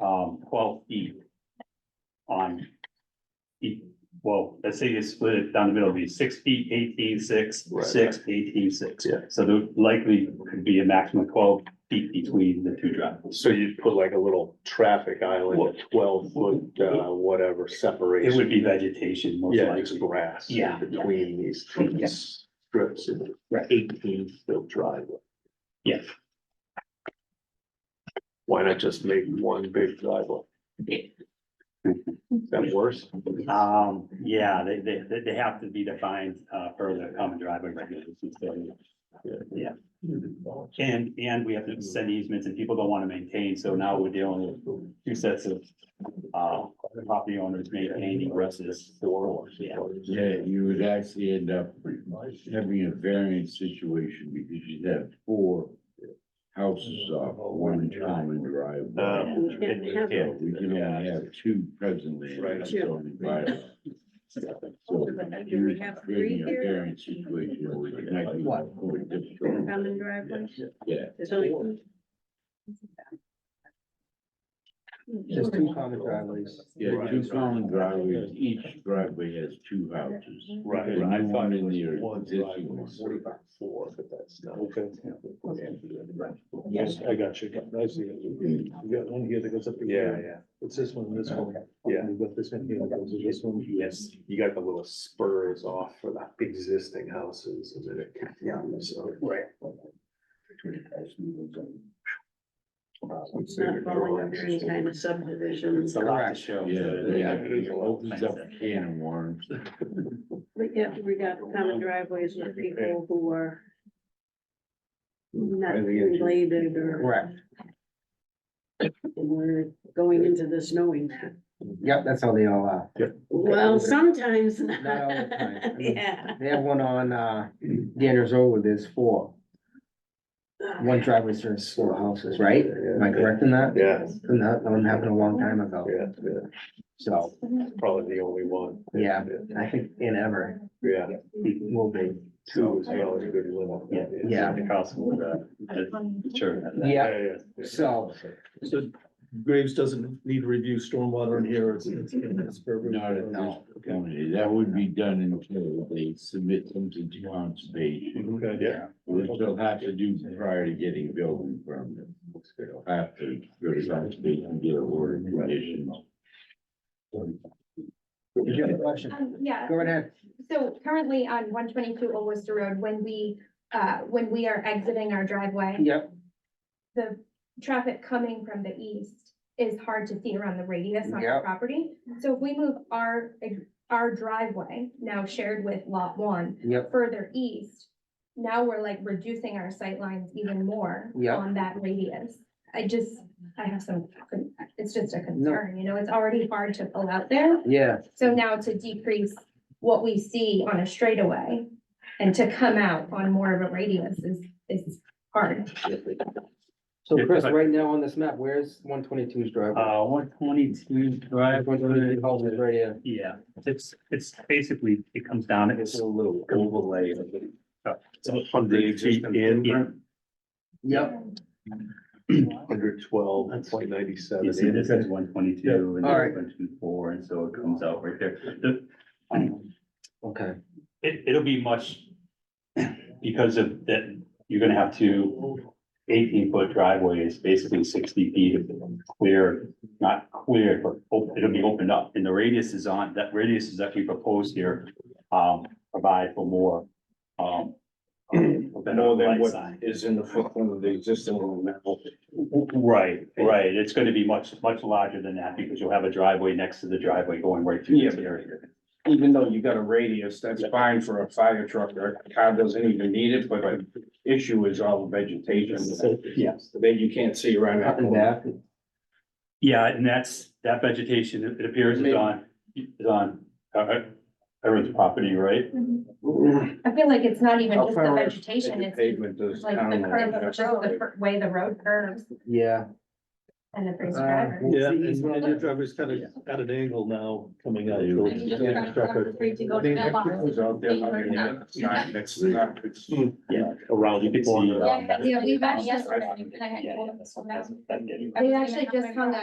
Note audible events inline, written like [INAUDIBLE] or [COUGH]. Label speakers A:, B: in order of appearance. A: um, twelve feet on each- well, let's say you split it down the middle, it'd be six feet, eighteen, six,
B: Right.
A: six, eighteen, six.
B: Yeah.
A: So there likely could be a maximum of twelve feet between the two driveways.
B: So you'd put like a little traffic island,
A: What?
B: a twelve foot, uh, whatever
A: It
B: separation.
A: would be vegetation most
B: Yeah, just
A: likely.
B: grass. in
A: Yeah.
B: Between these
A: Yeah.
B: trees, strips and
A: Right.
B: eighteen foot driveway.
A: Yeah.
B: Why not just make one big driveway? Is that worse?
A: Um, yeah, they, they, they- they have to be defined, uh, per the common driveway regulations. so- Yeah. And, and we have to send easements and people don't want to maintain, so now we're dealing with two sets of, uh, property owners maintaining versus four. Yeah,
C: Yeah, you would actually end up having a variance situation because you'd have four houses off one common driveway.
B: Um,
D: We can't have
B: yeah.
C: We can only have two presently. in
B: Right.
C: the zoning bylaw. So
D: But do
C: you're
D: we have three
C: creating a
D: here,
C: variance situation which might be more difficult.
D: common driveways?
C: Yeah.
D: There's only-
E: Just two common driveways.
C: Yeah, two common driveways, each driveway has two houses.
B: Right.
C: The
B: I
C: new
B: thought
C: one
B: it
C: and
B: was
C: the
B: one
C: existing
B: driveway,
C: one.
B: what about four, but that's not.
E: Okay.
B: Yes,
E: I got you. I see. You got one here that goes up. to
B: Yeah,
E: here.
B: yeah,
E: It's this one, this one.
B: Yeah.
E: You got this one here, that goes to this one.
B: yes, you got the little spurs off for the existing houses and then it. Yeah. So.
A: right.
D: It's not falling under any kind of subdivision,
A: It's a lot to show.
C: Yeah, yeah,
B: It is a
C: it
B: lot.
C: opens up a can of worms.
D: but yet we got common driveways with people who are not related or
E: Correct.
D: we're going into this knowing that.
E: Yep, that's how they all are.
D: Well, sometimes.
E: [LAUGHS] Not all the time.
D: [LAUGHS] Yeah.
E: They have one on, uh, Danner's Road, there's four, one driveway serves four houses, right? Am I correct in that?
B: Yeah,
E: And that one happened a long time ago,
B: yeah, yeah,
E: so,
B: probably the only one.
E: yeah, I think in ever
B: Yeah,
E: will be.
B: two is well a good limit.
A: Yeah.
E: Yeah.
A: Across with, uh, the church.
E: Yeah,
B: Yeah, yeah, yeah.
E: so,
F: So Graves doesn't need to review stormwater in here, it's, it's. it's per-
C: Not at all.
F: Okay.
C: Only That would be done until they submit something to conservation,
F: Okay.
B: Yeah.
C: which they'll have to do prior to getting a building permit. They'll have to go to conservation and get a order of conditions.
E: did you have a question?
G: Um, yeah,
E: Go right ahead.
G: so currently on one twenty-two Old Worcester Road, when we, uh, when we are exiting our driveway,
E: Yep,
G: the traffic coming from the east is hard to see around the radius on
E: Yeah.
G: our property. So if we move our, our driveway, now shared with lot one,
E: yep,
G: further east, now we're like reducing our sightlines even more
E: Yeah.
G: on that radius. I just, I have some, it's just a concern, you know, it's already hard to pull out there.
E: yeah,
G: So now to decrease what we see on a straightaway and to come out on more of a radius is, is hard.
E: so
A: Yeah,
E: Chris,
A: if I-
E: right now on this map, where's one twenty-two's driveway?
A: Uh, one twenty-two drive.
E: One twenty-two houses right here,
A: Yeah, it's, it's basically, it comes down, it's a little overlay. of the- So
B: From the existing
A: Yeah.
B: in,
E: yep,
B: hundred twelve,
A: That's-
B: point
A: You see,
B: ninety-seven.
A: this is one twenty-two and
E: Yeah, alright.
A: this one two four, and so it comes out right there. The- Um,
E: okay.
A: it, it'll be much, because of that, you're gonna have two eighteen-foot driveways, basically sixty feet of clear, not clear, but op- it'll be opened up. And the radius is on, that radius is that we propose here, um, provide for more, um, um, a better
B: More than
A: light
B: what-
A: sign.
B: Is in the footprint of the existing one now.
A: Right, right. It's gonna be much, much larger than that because you'll have a driveway next to the driveway going right through this area.
H: even though you got a radius, that's fine for a fire truck or a car doesn't even need it, but the issue is all the vegetation
A: Yes.
H: that you can't see around that.
E: Up and
H: corner.
E: back,
A: Yeah, and that's, that vegetation, it it appears is on, is on, uh, uh, Aaron's property, right?
G: I feel like it's not even
H: How
G: just the
H: far is
G: vegetation,
H: The
G: it's
H: Pavement does
G: like the
H: town.
G: curve, of- just the fir- way the road curves
E: yeah.
G: and the freeze
E: Uh,
G: driver.
F: Yeah, and
E: It's
F: and
E: not-
F: your driver's kind of at an angle now coming out.
C: Yeah.
F: towards the traffic.
D: Free to go
H: I
D: to
H: mean,
D: the
H: that
D: box.
H: goes out there, I mean, that's not- that's not- it's-
B: Around, you can see.
A: Yeah.
B: around that.
G: Yeah, we've
I: We've
G: actually,
I: yesterday, and I had told them this one.
A: That's- that's getting-
G: we've actually just hung a